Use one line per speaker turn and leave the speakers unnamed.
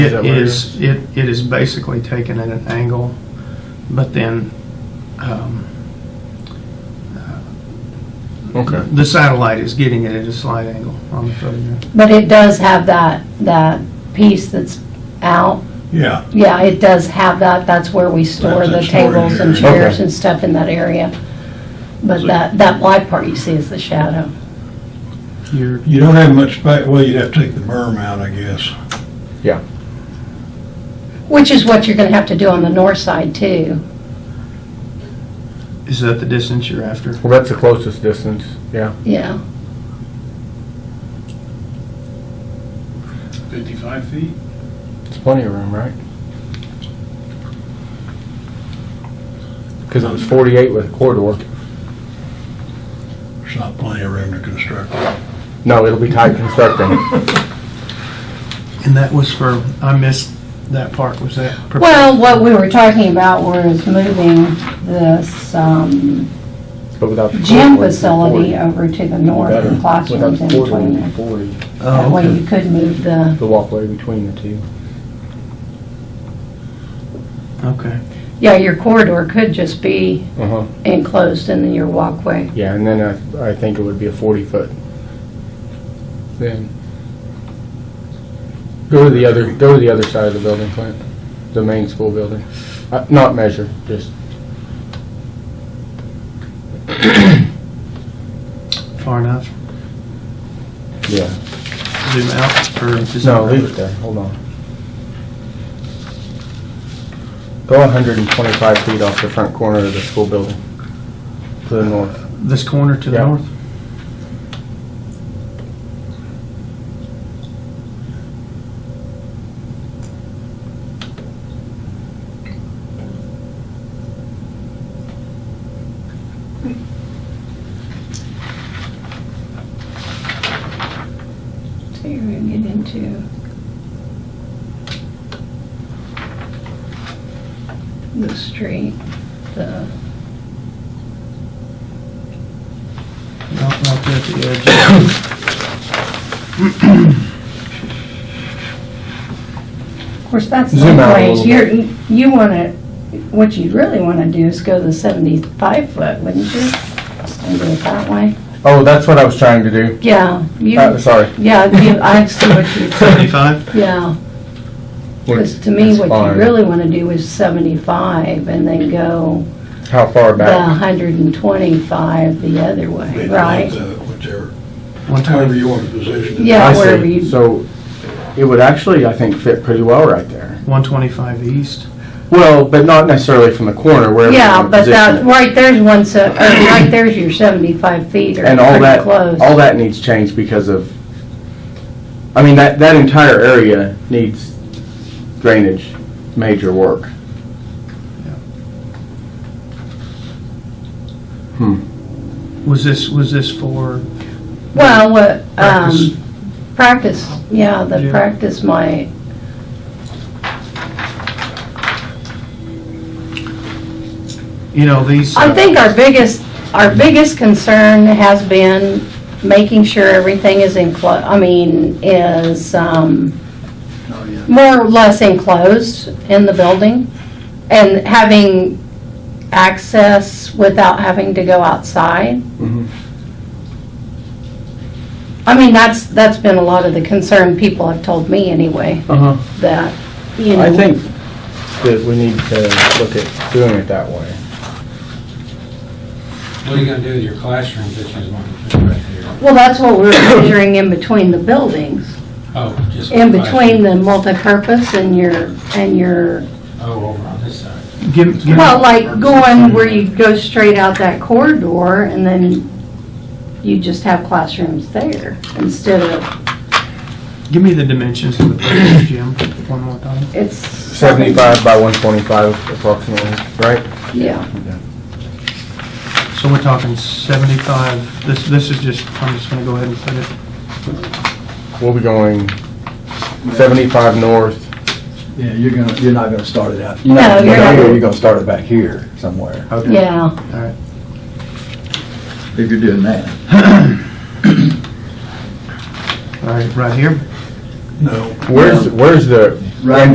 Is
It
that where it
is, it, it is basically taken at an angle, but then, um,
Okay.
the satellite is getting it at a slight angle on the photograph.
But it does have that, that piece that's out.
Yeah,
Yeah, it does have that. That's where we store the
That's a storage
tables and
area.
chairs
Okay.
and stuff in that area. But
So-
that, that black part you see is the shadow.
You're,
you don't have much space, well, you'd have to take the berm out, I guess.
Yeah.
Which is what you're gonna have to do on the north side too.
is that the distance you're after?
Well, that's the closest distance. Yeah.
Yeah,
55 feet?
It's plenty of room, right? Because it was 48 with a corridor.
There's not plenty of room to construct.
No, it'll be tight constructing.
And that was for, I missed that part, was that? prepared?
Well, what we were talking about was moving this um,
But without the
gym
corridor, it's
facility
40.
over to the north
Better.
and classrooms
Without
in
the corridor,
between
it's
there.
40.
That
Oh,
way
okay.
you could move the,
The walkway between the two.
Okay.
yeah, your corridor could just be
Uh-huh.
enclosed and then your walkway.
Yeah, and then I, I think it would be a 40-foot. Then, go to the other, go to the other side of the building, Clint, the main school building. Uh, Not measure, just,
Far enough.
yeah.
Zoom out or just?
No, leave it there, hold on. Go 125 feet off the front corner of the school building, to the north.
This corner to the
Yeah.
north?
So you're gonna get into the street, the,
No, right there at the
of course, that's the
Zoom out a
place,
little
you're, you wanna, what you really wanna do is go the seventy-five foot, wouldn't you? And do it that way,
Oh, that's what I was trying to do.
yeah, you,
Uh, Sorry.
yeah, you- I see what you,
edge. Seventy-five?
yeah. Because to me,
That's
what
fine.
you really want to do is 75 and then go
How far
the
back?
125 the other way, right?
Whichever,
One
however
twenty,
you want to position it.
Yeah.
I see.
wherever you-
So, it would actually, I think, fit pretty well right there.
one twenty-five east?
Well, but not necessarily from the corner where.
Yeah, but that, right there's one, se- or right there's your 75 feet or
And all
pretty
that,
close.
all that needs change because of, I mean, that, that entire area needs drainage, major work.
Was this, was this for,
Well, what,
Practice.
um, practice, yeah, the
Yeah.
practice might,
you know, these?
I
uh,
think our biggest, our biggest concern has been making sure everything is enclosed, I mean, is, um, more or less enclosed in the building and having access without having to go outside.
Mhm.
I mean, that's, that's been a lot of the concern people have told me anyway,
Uh-huh.
that, you know.
I think that we need to look at doing it that way.
What are you gonna do with your classrooms that you want to put right there?
Well, that's what we're measuring in between the buildings.
Oh, just.
In between the multipurpose and your, and your,
Oh, over on this side.
Give, give.
well, like going where you go straight out that corridor and then you just have classrooms there instead of,
Give me the dimensions of the place, Jim, one more time.
it's.
Seventy-five by one twenty-five approximately, right?
Yeah,
So we're talking 75, this, this is just, I'm just gonna go ahead and put it,
We'll be going seventy-five north.
Yeah, you're gonna, you're not gonna start it out.
No, you're not.
You're gonna start it back here somewhere,
Okay.
yeah,
if you're doing that.
all right, right here.
No,
Where's, where's the, right